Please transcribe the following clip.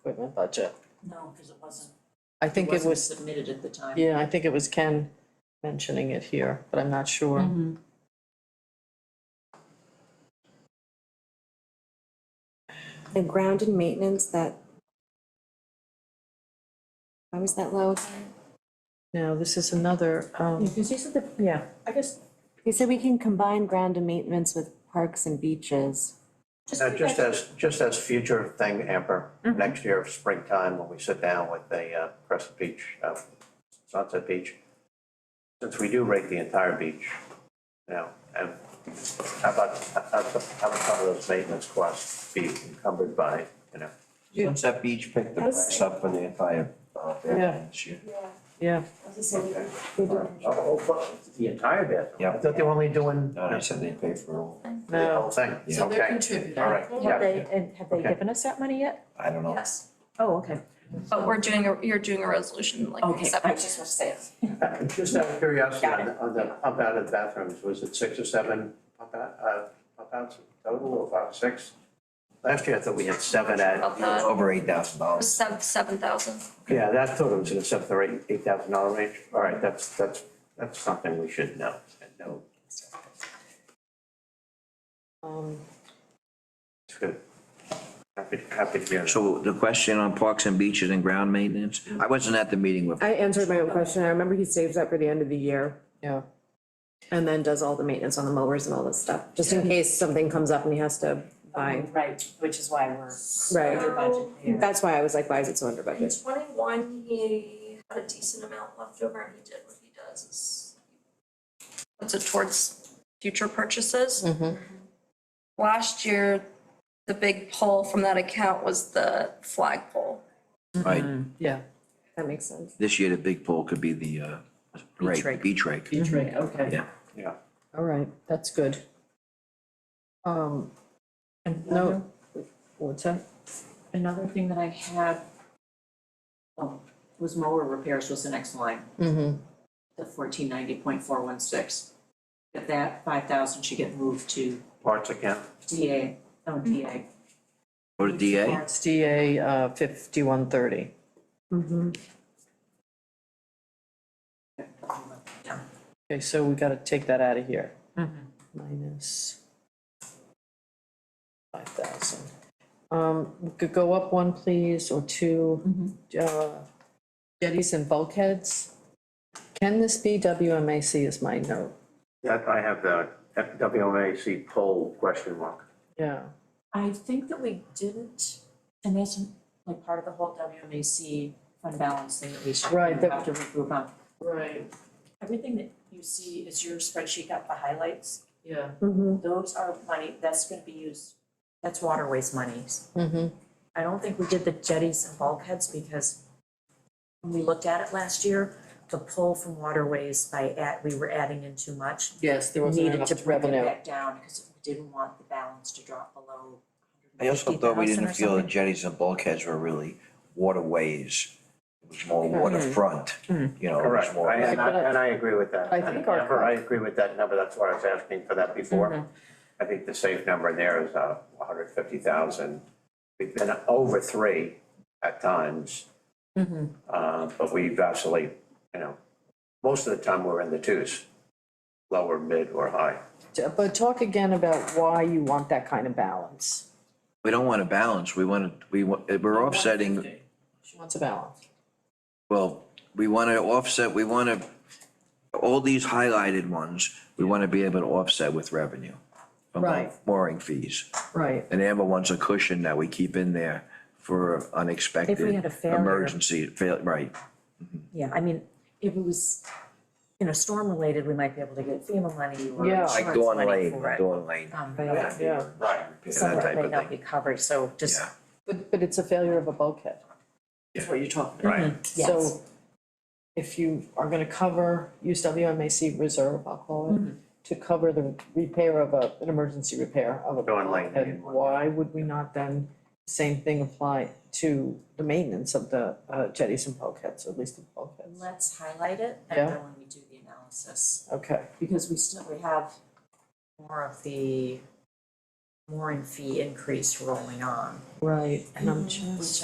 equipment budget. No, because it wasn't, I think it wasn't was, submitted at the time. yeah, I think it was Ken mentioning it here, but I'm not sure. Mm-hmm. Mhm. The ground and maintenance that. Why was that low? again? Now, this is another, um, Because these are the, yeah, I guess, They said we can combine ground and maintenance with parks and beaches. just. Uh, go just back- as, just as future thing, Amber, next year, springtime, when we sit down with the uh, Crescent Beach, uh, Sunset Beach. Since we do rate the entire beach, you know, and how about, how about how about some of those maintenance costs be encumbered by, you know? Sunset Beach picked the price up for the entire, uh, Yeah. building this year. yeah, Oh, oh, The entire bathroom? Yeah. I thought they were only doing No, they the said they paid for all, whole no, thing, okay. So they're contributing. All right, Have yeah, they, and have they Okay. given us that money yet? I don't know. Yes. Oh, okay. But we're doing, a you're doing a resolution like Okay, seven. I just want to say it. Uh, just out of curiosity, Got on the, on the pump out of the bathrooms, was it six or seven pump out, uh, pump outs total, or about six? Last year, I thought we had seven at, Pump out. Over eight thousand dollars. Seven, seven thousand. yeah, that total was in the seven or eight, eight thousand dollar range, all right, that's, that's, that's something we should know, no, um, it's good. Happy, happy to hear that. So the question on parks and beaches and ground maintenance, I wasn't at the meeting with, I answered my own question. I remember he saves up for the end of the year yeah. and then does all the maintenance on the mowers and all this stuff, just in case something comes up and he has to buy. Right, which is why we're. Right. under budget there. That's why I was like, why is it so under In budget? twenty-one, he had a decent amount left over and he did what he does is puts it towards future purchases. Mm-hmm. Last year, the big pull from that account was the flagpole. Mm-hmm. right, Yeah, That makes sense. this year the big pool could be the, uh, rake, rake. Mm-hmm. beach rake. Beach rate, okay. Yeah. Yeah, all right, that's good. Um, and no, what's that? Another thing that I had, oh, was mower repairs was the next line, Mm-hmm, the fourteen ninety point four one six. If that five thousand should get moved to oh, parts account, DA, no, DA. Go to DA, it's DA, uh, fifty-one thirty. Mm-hmm. Yeah. Okay, so we gotta take that out of here. Minus five thousand. Um, we could go up one, please, or two, uh, jetties and bulkheads. Can this be WMAC is my note, that, I have the WMAC poll question mark. yeah. I think that we didn't, and that's like part of the whole WMAC fund balance thing that we should, Right, we that- have to regroup on. Right, Everything that you see is your spreadsheet got the highlights, yeah. Mm-hmm. those are money, that's gonna be used, that's waterways monies. Mm-hmm, I don't think we did the jetties and bulkheads because when we looked at it last year, the pull from waterways by at, we were adding in too much. yes, there wasn't Needed enough to bring it revenue. back down because we didn't want the balance to drop below I also thought we 150,000 didn't or feel the something. jetties and bulkheads were really waterways. It was more Mm-hmm. waterfront, you know, it was Correct, more. I- and I, But I- and I agree with that. I think our- Mm-hmm. Amber, I agree with that number, that's why I was asking for that before. I think the safe number there is uh hundred fifty thousand. We've been over three at times. Mm-hmm. Uh, but we vacillate, you know, most of the time we're in the twos, lower, mid, or high. But talk again about why you want that kind of balance. We don't want to balance, we want to, we, want- we're offsetting She wants a balance. Well, we want to offset, we want to, all these highlighted ones, we want to be able to offset with revenue. from like Right. Mooring fees. Right. And Amber wants a cushion that we keep in there for unexpected. had a failure. Emergency, fail, right. Yeah, I mean, if it was, you know, storm related, we might be able to get FEMA money or Yeah. insurance money Like for it. Dawn Lane, Dawn Lane. Um, that'd be- Yeah. Right. That Some of it type may of not thing, be covered, so just, yeah. But, but it's a failure of a bulkhead. That's what you're talking about. Right. yes. So if you are gonna cover, use WMAC reserve, I'll call it, to cover the repair of a, an emergency repair of a Go on, like, bulkhead, main one. why would we not then, same thing apply to the maintenance of the uh, jetties and bulkheads, at least the bulkheads? Let's highlight it Yeah. and then when we do the analysis. Okay, because we still, we have more of the mooring fee increase rolling on, right, and I'm which just.